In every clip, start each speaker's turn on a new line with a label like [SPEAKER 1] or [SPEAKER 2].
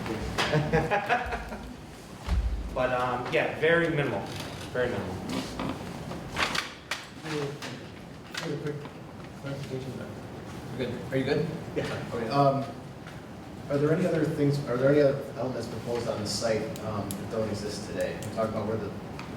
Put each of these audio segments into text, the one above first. [SPEAKER 1] But, um, yeah, very minimal, very minimal.
[SPEAKER 2] Good, are you good?
[SPEAKER 1] Yeah.
[SPEAKER 2] Okay.
[SPEAKER 3] Um, Are there any other things, are there any other elements proposed on the site um, that don't exist today? We talked about where the,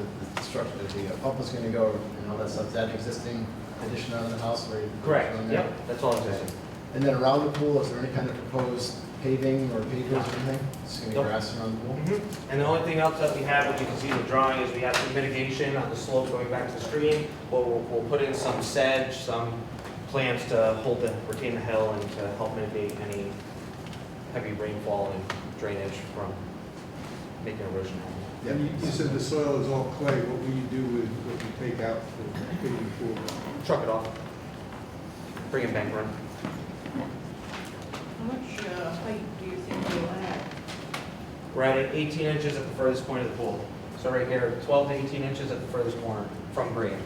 [SPEAKER 3] the- the structure, the uh, pump is going to go and all that stuff. Is that an existing addition on the house where you?
[SPEAKER 1] Correct, yep, that's all I'm saying.
[SPEAKER 3] And then around the pool, is there any kind of proposed paving or pavers or anything? It's going to
[SPEAKER 1] Nope.
[SPEAKER 3] be grass around the pool?
[SPEAKER 1] Mhm. And the only thing else that we have, which you can see in the drawing, is we have some mitigation on the slope going back to the stream. We'll, we'll- we'll put in some sedge, some plants to hold the, retain the hill and to help mitigate any heavy rainfall and drainage from making erosion happen.
[SPEAKER 3] Yeah.
[SPEAKER 4] And you you said the soil is all clay, what will you do with what you take out for paving for?
[SPEAKER 1] Truck it off. Bring it back, run.
[SPEAKER 5] How much uh, height do you think you'll add?
[SPEAKER 1] We're at eighteen inches at the furthest point of the pool. So right here, twelve to eighteen inches at the furthest corner from grade.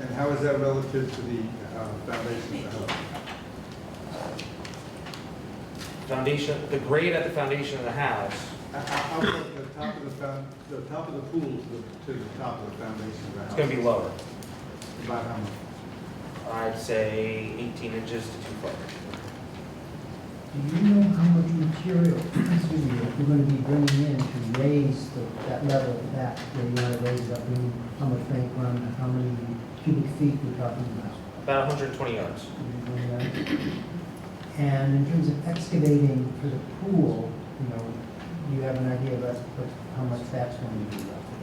[SPEAKER 4] And how is that relative to the uh, foundation of the house?
[SPEAKER 1] Foundation, the grade at the foundation of the house
[SPEAKER 4] How- How how about the top of the found, the top of the pool to the, to the top of the foundation of the house?
[SPEAKER 1] is gonna be lower.
[SPEAKER 4] About how much?
[SPEAKER 1] I'd say 18 inches to 2 foot.
[SPEAKER 6] Do you know how much material, excuse me, that you're gonna be bringing in to raise the, that level back where you wanna raise it up? I mean, How much bank run, how many cubic feet we're talking about?
[SPEAKER 1] About 120 yards.
[SPEAKER 6] And in terms of excavating for the pool, you know, do you have an idea about what- how much that's going to be roughly?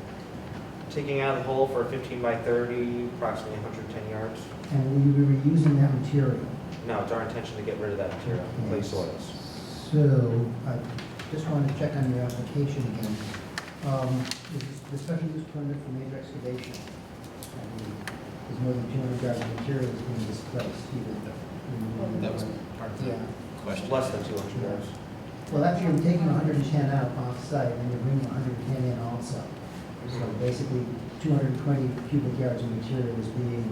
[SPEAKER 1] Taking out the hole for a 15 by 30, approximately 110 yards.
[SPEAKER 6] And will you be reusing that material?
[SPEAKER 1] No, it's our intention to get rid of that material, clay soils.
[SPEAKER 6] So, I just wanted to check on your application again. Um, is The special use permit for major excavation, I believe, is more than 200 yards of material is being displaced, even
[SPEAKER 2] That was
[SPEAKER 6] though.
[SPEAKER 2] part of
[SPEAKER 6] Yeah,
[SPEAKER 2] the question.
[SPEAKER 1] Less than 200 yards.
[SPEAKER 6] well, actually, you're taking 110 out off-site, and you're bringing 110 in also. So basically, 220 cubic yards of material is being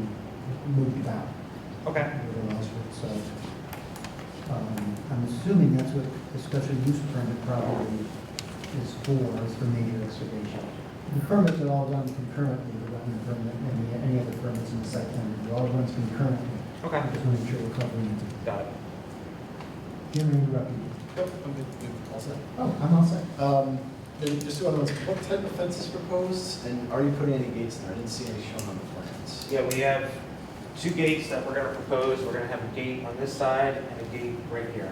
[SPEAKER 6] moved out.
[SPEAKER 1] Okay.
[SPEAKER 6] Everyone else would, so, um, I'm assuming that's what the special use permit probably is for, is for major excavation. The permits are all done concurrently, the wetland permit and the, any other permits in the site plan, they're all done concurrently.
[SPEAKER 1] Okay.
[SPEAKER 6] I just want to make sure we're covering it.
[SPEAKER 1] Got it.
[SPEAKER 6] Jim, I interrupted you.
[SPEAKER 3] Nope, I'm good, good, all set.
[SPEAKER 6] Oh, I'm all set.
[SPEAKER 3] Um, Then just one other, what type of fence is proposed and are you putting any gates in there? I didn't see any shown on the plans.
[SPEAKER 1] Yeah, we have two gates that we're gonna propose. We're gonna have a gate on this side and a gate right here.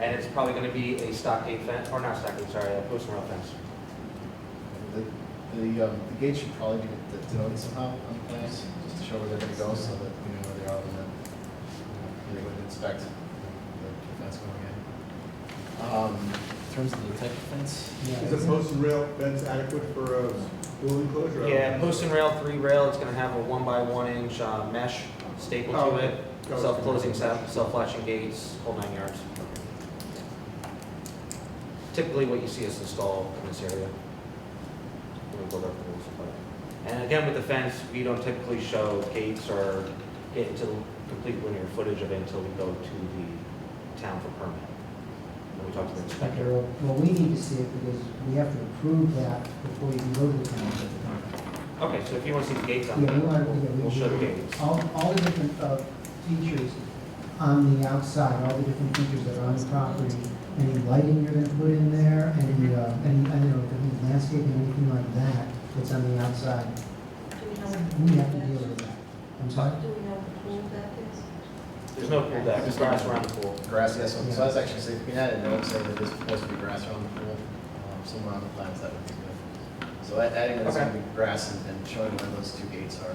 [SPEAKER 1] And it's probably gonna be a stockade fence, or not stockade, sorry, a post and rail fence.
[SPEAKER 3] The, the, um, the gates should probably be de- denoted somehow on the plans, just to show where they're gonna go, so that we know where they are, and then, you know, they would inspect the fence going in. Um, in terms of the type of fence,
[SPEAKER 6] Yeah.
[SPEAKER 4] Is a post and rail fence adequate for a building closure? I don't
[SPEAKER 1] Yeah,
[SPEAKER 4] know.
[SPEAKER 1] post and rail, three rail, it's gonna have a one by one inch uh, mesh staple to
[SPEAKER 4] Oh,
[SPEAKER 1] it.
[SPEAKER 4] okay.
[SPEAKER 1] Self-closing, self- self-flashing gates, whole nine yards. Typically what you see us install in this area. when we build our pools, but- And again, with the fence, we don't typically show gates or get into complete linear footage of it until we go to the town for permit. When we talk to the inspector.
[SPEAKER 6] Well, we need to see it because we have to approve that before you can go to the town.
[SPEAKER 1] Okay, so if you want to see the gates on
[SPEAKER 6] Yeah,
[SPEAKER 1] that,
[SPEAKER 6] we want, yeah,
[SPEAKER 1] we'll we'll show the
[SPEAKER 6] we,
[SPEAKER 1] gates.
[SPEAKER 6] all, all the different, uh, features on the outside, all the different features that are on the property, any lighting you're gonna put in there, any, uh, any, I don't know, if there's any landscaping, anything like that that's on the outside,
[SPEAKER 5] Do we know what
[SPEAKER 6] we
[SPEAKER 5] pool
[SPEAKER 6] have to deal
[SPEAKER 5] that
[SPEAKER 6] with that. I'm sorry?
[SPEAKER 5] is? Do we know what pool that is?
[SPEAKER 1] There's no pool deck, it's grass around the pool.
[SPEAKER 3] grass, yes, so so that's actually, so if you can add a note saying that there's supposed to be grass around the pool, um, somewhere on the plans, that would be good. So a- adding that's gonna be grass and- and showing where those two gates are.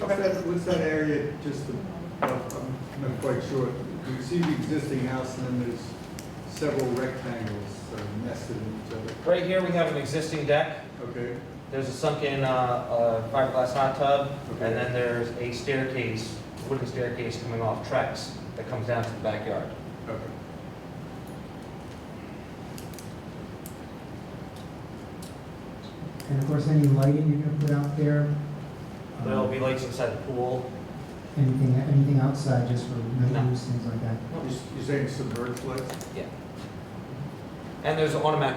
[SPEAKER 4] What's that, what's that area, just, the- I'm I'm not quite sure, you see the existing house and then there's several rectangles sort of nested in each other,
[SPEAKER 1] Right here, we have an existing deck.
[SPEAKER 4] okay?
[SPEAKER 1] There's a sunken uh, uh, fiberglass hot tub,
[SPEAKER 4] Okay.
[SPEAKER 1] and then there's a staircase, wooden staircase coming off tracks that comes down to the backyard.
[SPEAKER 4] Okay.
[SPEAKER 6] And of course, any lighting you're gonna put out there? um,
[SPEAKER 1] There'll be lights inside the pool.
[SPEAKER 6] Anything, anything outside, just for
[SPEAKER 1] No.
[SPEAKER 6] menus, things like that?
[SPEAKER 4] You're- You're saying subvert lights?
[SPEAKER 1] Yeah. And there's automatic